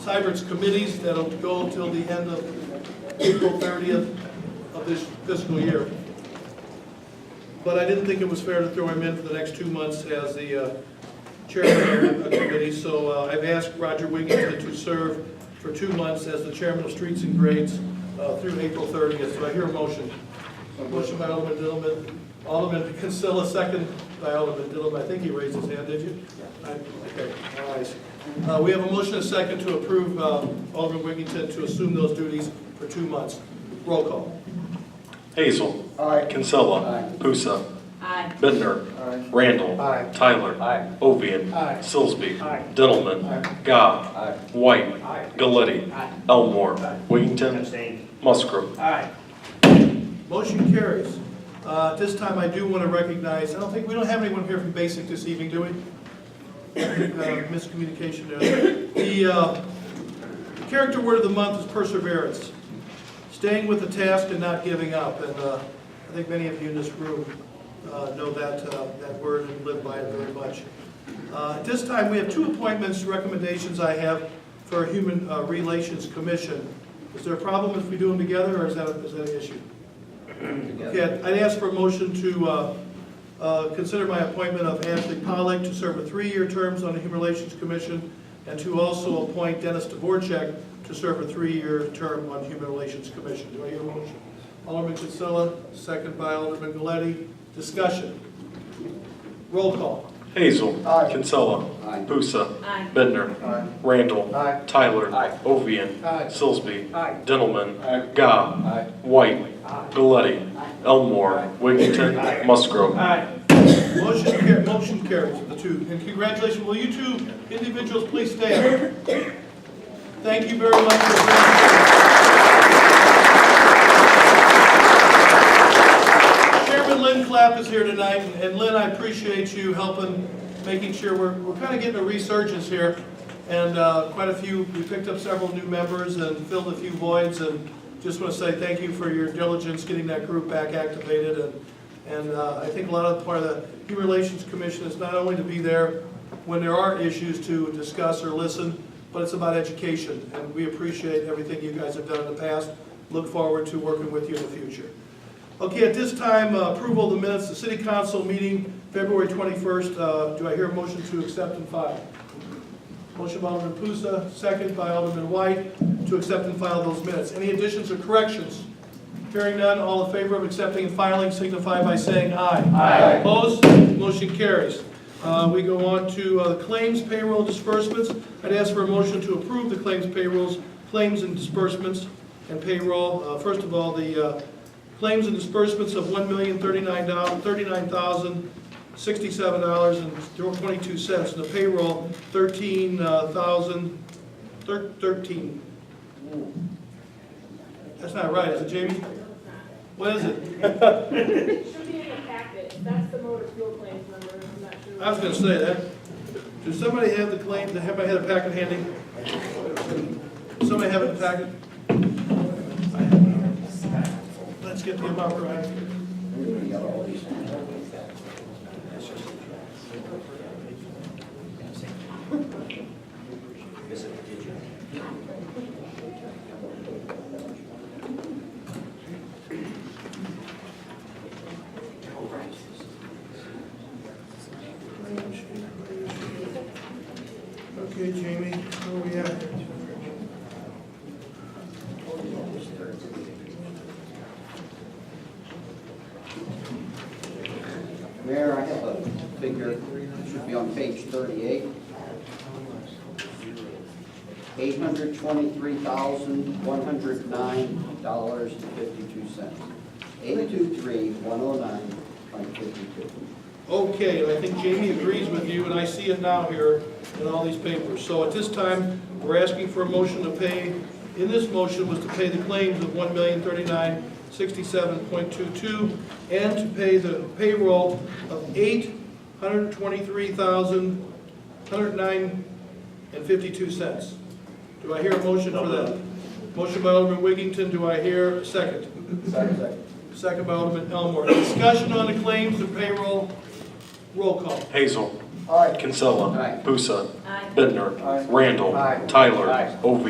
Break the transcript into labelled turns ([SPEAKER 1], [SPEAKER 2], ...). [SPEAKER 1] Cybert's committees that'll go till the end of April thirtieth of this fiscal year. But I didn't think it was fair to throw him in for the next two months as the uh, chairman of the committee, so uh, I've asked Roger Wiggington to serve for two months as the chairman of Streets and Grades uh, through April thirtieth, so I hear a motion. A motion by Alderman Dillman, Alderman Consilla, second by Alderman Dillman, I think he raised his hand, did you? I- Okay, all eyes. Uh, We have a motion and a second to approve uh, Alderman Wiggington to assume those duties for two months. Roll call.
[SPEAKER 2] Hazel.
[SPEAKER 3] Aye.
[SPEAKER 2] Kinsella.
[SPEAKER 3] Aye.
[SPEAKER 2] Pusa.
[SPEAKER 4] Aye.
[SPEAKER 2] Bittner.
[SPEAKER 3] Aye.
[SPEAKER 2] Randall.
[SPEAKER 3] Aye.
[SPEAKER 2] Tyler.
[SPEAKER 3] Aye.
[SPEAKER 2] Ovian.
[SPEAKER 3] Aye.
[SPEAKER 2] Sillsby.
[SPEAKER 3] Aye.
[SPEAKER 2] Dillman.
[SPEAKER 3] Aye.
[SPEAKER 2] Gobb.
[SPEAKER 3] Aye.
[SPEAKER 2] White.
[SPEAKER 3] Aye.
[SPEAKER 2] Galletti.
[SPEAKER 3] Aye.
[SPEAKER 2] Elmore.
[SPEAKER 3] Aye.
[SPEAKER 2] Wiggington.
[SPEAKER 3] Abstain.
[SPEAKER 2] Musgrove.
[SPEAKER 3] Aye.
[SPEAKER 1] Motion carries. Uh, At this time, I do want to recognize, I don't think, we don't have anyone here from Basic this evening, do we? Uh, Miscommunication there. The uh, character word of the month is perseverance, staying with the task and not giving up. And uh, I think many of you in this room uh, know that, uh, that word and live by it very much. Uh, At this time, we have two appointments, recommendations I have for a Human uh, Relations Commission. Is there a problem if we do them together, or is that, is that an issue? Okay, I'd ask for a motion to uh, uh, consider my appointment of Ashley Pollack to serve a three-year term on the Human Relations Commission, and to also appoint Dennis Dvorak to serve a three-year term on Human Relations Commission. Do I hear a motion? Alderman Kinsella, second by Alderman Galetti. Discussion. Roll call.
[SPEAKER 2] Hazel.
[SPEAKER 3] Aye.
[SPEAKER 2] Kinsella.
[SPEAKER 3] Aye.
[SPEAKER 2] Pusa.
[SPEAKER 4] Aye.
[SPEAKER 2] Bittner.
[SPEAKER 3] Aye.
[SPEAKER 2] Randall.
[SPEAKER 3] Aye.
[SPEAKER 2] Tyler.
[SPEAKER 3] Aye.
[SPEAKER 2] Ovian.
[SPEAKER 3] Aye.
[SPEAKER 2] Sillsby.
[SPEAKER 3] Aye.
[SPEAKER 2] Dillman.
[SPEAKER 3] Aye.
[SPEAKER 2] Gobb.
[SPEAKER 3] Aye.
[SPEAKER 2] White.
[SPEAKER 3] Aye.
[SPEAKER 2] Galletti. Elmore. Wiggington. Musgrove.
[SPEAKER 3] Aye.
[SPEAKER 1] Motion car, motion carries, the two. And congratulations, will you two individuals please stand? Thank you very much for Chairman Lynn Clapp is here tonight, and Lynn, I appreciate you helping, making sure, we're, we're kind of getting a resurgence here, and uh, quite a few, we picked up several new members and filled a few voids, and just want to say thank you for your diligence getting that group back activated, and, and uh, I think a lot of, part of the Human Relations Commission is not only to be there when there are issues to discuss or listen, but it's about education, and we appreciate everything you guys have done in the past, look forward to working with you in the future. Okay, at this time, uh, approval of the minutes, the city council meeting, February 21st. Uh, Do I hear a motion to accept and file? Motion by Alderman Pusa, second by Alderman White, to accept and file those minutes. Any additions or corrections? Hearing none, all in favor of accepting and filing signify by saying aye.
[SPEAKER 3] Aye.
[SPEAKER 1] Opposed? Motion carries. Uh, We go on to uh, claims, payroll, disbursements. I'd ask for a motion to approve the claims, payrolls, claims and disbursements and payroll. Uh, First of all, the uh, claims and disbursements of $1,039,000, $69.22, and the payroll, $13,000, thir- 13. That's not right, is it, Jamie? What is it?
[SPEAKER 5] Should be in the packet, that's the motor fuel claims number, I'm not sure.
[SPEAKER 1] I was gonna say that. Does somebody have the claim, have I had a packet handy? Somebody have it in the packet? Let's get the amount right. Okay, Jamie, where we at?
[SPEAKER 6] Mayor, I have a figure, it should be on page thirty-eight. Eight hundred twenty-three thousand, one hundred nine dollars and fifty-two cents. Eight-two-three, one oh nine, point fifty-two.
[SPEAKER 1] Okay, and I think Jamie agrees with you, and I see it now here in all these papers. So at this time, we're asking for a motion to pay, in this motion was to pay the claims of one million thirty-nine sixty-seven point two-two, and to pay the payroll of eight hundred twenty-three thousand, hundred nine and fifty-two cents. Do I hear a motion for that? Motion by Alderman Wiggington, do I hear a second? Second by Alderman Elmore. Discussion on the claims and payroll. Roll call.
[SPEAKER 2] Hazel.
[SPEAKER 6] Aye.
[SPEAKER 2] Kinsella.
[SPEAKER 6] Aye.
[SPEAKER 2] Busa.
[SPEAKER 5] Aye.
[SPEAKER 2] Bittner.
[SPEAKER 6] Aye.
[SPEAKER 2] Randall.
[SPEAKER 6] Aye.
[SPEAKER 2] Tyler.
[SPEAKER 6] Aye.
[SPEAKER 2] Ovian.